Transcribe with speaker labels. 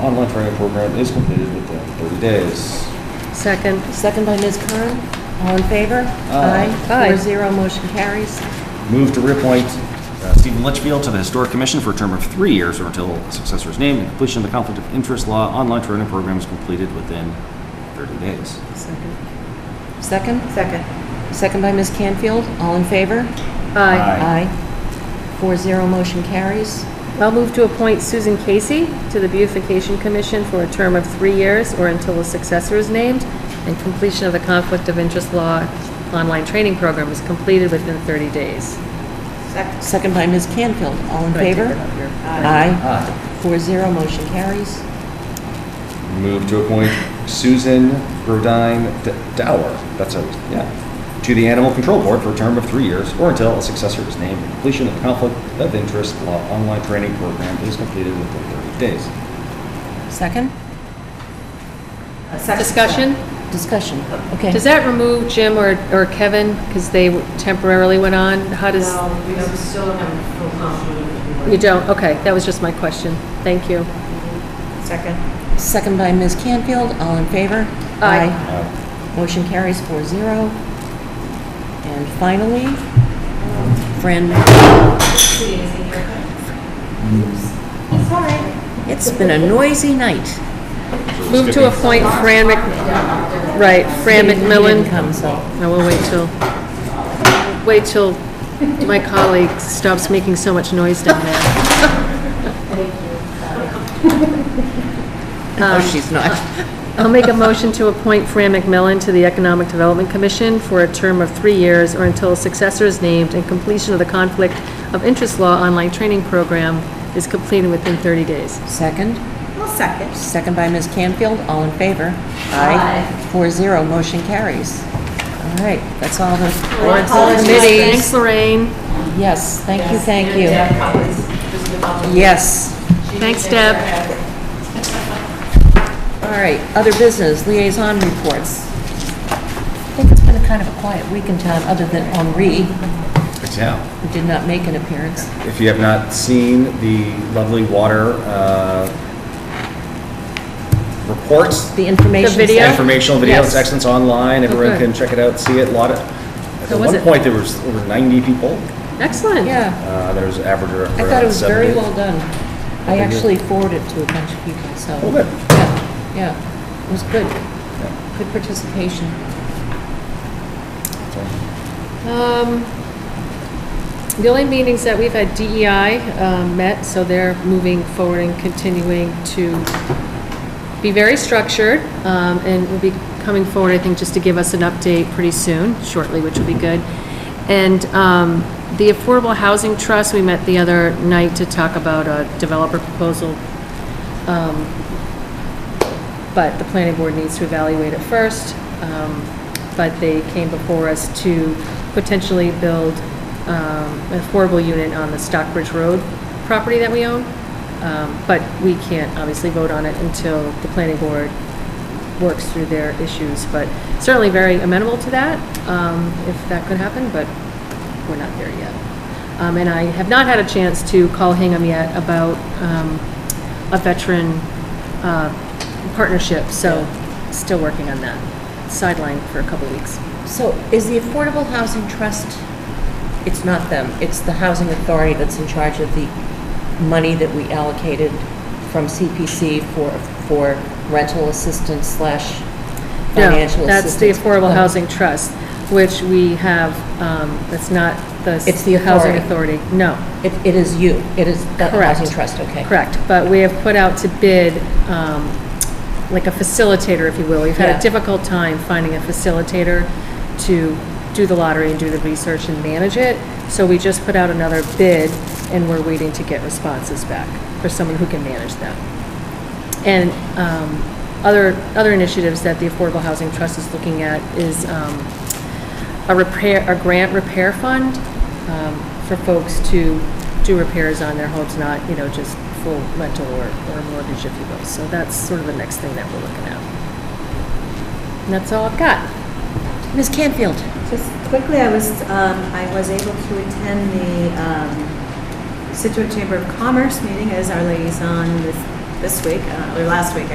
Speaker 1: online training program is completed within 30 days.
Speaker 2: Second.
Speaker 3: Second by Ms. Kern. All in favor?
Speaker 1: Aye.
Speaker 2: Aye.
Speaker 3: Four zero, motion carries.
Speaker 1: Move to reappoint uh, Stephen Litchfield to the Historic Commission for a term of three years or until a successor is named and completion of the Conflict of Interest Law online training program is completed within 30 days.
Speaker 3: Second. Second?
Speaker 2: Second.
Speaker 3: Second by Ms. Canfield. All in favor?
Speaker 2: Aye.
Speaker 3: Aye. Four zero, motion carries.
Speaker 2: I'll move to appoint Susan Casey to the Beautification Commission for a term of three years or until a successor is named and completion of the Conflict of Interest Law online training program is completed within 30 days.
Speaker 3: Second by Ms. Canfield. All in
Speaker 2: Do I take
Speaker 3: favor?
Speaker 2: that up here?
Speaker 3: Aye. Four zero, motion carries.
Speaker 1: Move to appoint Susan Brodine D- Dower, that's how, it's- yeah, to the Animal Control Board for a term of three years or until a successor is named and completion of the Conflict of Interest Law online training program is completed within 30 days.
Speaker 3: Second?
Speaker 2: Discussion?
Speaker 3: Discussion. Okay.
Speaker 2: Does that remove Jim or or Kevin because they temporarily went on? How does?
Speaker 4: No, we don't- still don't have full confidence.
Speaker 2: You don't? Okay, that was just my question. Thank you.
Speaker 4: Second.
Speaker 3: Second by Ms. Canfield. All in favor?
Speaker 2: Aye.
Speaker 1: Uh,
Speaker 3: Motion carries four zero. And finally, Fran, it's been a noisy night.
Speaker 2: Move to appoint Fran Mc, right, Fran
Speaker 3: He didn't- he
Speaker 2: McMillan.
Speaker 3: didn't come, so.
Speaker 2: No, we'll wait till, wait till my colleague stops making so much noise down there.
Speaker 3: No, Oh, she's not.
Speaker 2: I'll make a motion to appoint Fran McMillan to the Economic Development Commission for a term of three years or until a successor is named and completion of the Conflict of Interest Law online training program is completed within 30 days.
Speaker 3: Second,
Speaker 4: I'll second.
Speaker 3: second by Ms. Canfield, all in favor? Aye. Four zero, motion carries. All right, that's all the boards and
Speaker 2: Thanks,
Speaker 3: committees.
Speaker 2: Lorraine.
Speaker 3: Yes, thank you, thank
Speaker 4: And
Speaker 3: you.
Speaker 4: Deb Collins, who's the public-
Speaker 3: Yes,
Speaker 4: she
Speaker 2: Thanks,
Speaker 4: takes care of
Speaker 2: Deb.
Speaker 4: everything.
Speaker 3: all right, other business, liaison reports. I think it's been a kind of a quiet week in town, other than Henri, who
Speaker 1: Yeah.
Speaker 3: did not make an appearance.
Speaker 1: If you have not seen the lovely water uh, reports,
Speaker 3: The information.
Speaker 2: The video?
Speaker 3: session-
Speaker 1: informational video, it's
Speaker 3: Yes.
Speaker 1: excellent, it's online, everyone
Speaker 2: Okay.
Speaker 1: can check it out, see it, a lot of,
Speaker 2: How
Speaker 1: at
Speaker 2: was
Speaker 1: one
Speaker 2: it?
Speaker 1: point, there was over 90 people,
Speaker 2: Excellent.
Speaker 3: Yeah,
Speaker 1: Uh, there was an average of around
Speaker 3: I thought it was very
Speaker 1: 70.
Speaker 3: well done. I actually forwarded it to a bunch of people, so.
Speaker 1: Oh, good.
Speaker 3: Yeah, yeah, it was good. Good participation.
Speaker 2: Um, The only meetings that we've had, DEI um, met, so they're moving forward and continuing to be very structured, um, and will be coming forward, I think, just to give us an update pretty soon, shortly, which will be good. And um, the Affordable Housing Trust, we met the other night to talk about a developer proposal but the planning board needs to evaluate it first. Um, But they came before us to potentially build um, an affordable unit on the Stockbridge Road property that we own. Um, But we can't obviously vote on it until the planning board works through their issues. But certainly very amenable to that, um, if that could happen, but we're not there yet. Um, And I have not had a chance to call Hingham yet about um, a veteran uh, partnership, so still working on that. Sideline for a couple weeks.
Speaker 3: So is the Affordable Housing Trust, it's not them, it's the Housing Authority that's in charge of the money that we allocated from CPC for, for rental assistance slash financial
Speaker 2: No, that's the
Speaker 3: assistance?
Speaker 2: Affordable
Speaker 3: Oh,
Speaker 2: Housing Trust, which we have, um, that's not the. s-
Speaker 3: It's the
Speaker 2: Housing
Speaker 3: authority.
Speaker 2: Authority, no.
Speaker 3: It, it is you, it is the
Speaker 2: Correct.
Speaker 3: Housing Trust, okay.
Speaker 2: Correct, but we have put out to bid, um, like a facilitator, if you will. We've had
Speaker 3: Yeah.
Speaker 2: a difficult time finding a facilitator to do the lottery and do the research and manage it, so we just put out another bid, and we're waiting to get responses back for someone who can manage that. And um, other, other initiatives that the Affordable Housing Trust is looking at is um, a repair, a grant repair fund um, for folks to do repairs on their homes, not, you know, just full rental or or mortgage, if you will. So that's sort of the next thing that we're looking at. And that's all I've got.
Speaker 3: Ms. Canfield?
Speaker 5: Just quickly, I was, um, I was able to attend the um, Situate Chamber of Commerce meeting as our liaison this this week, uh, or last week,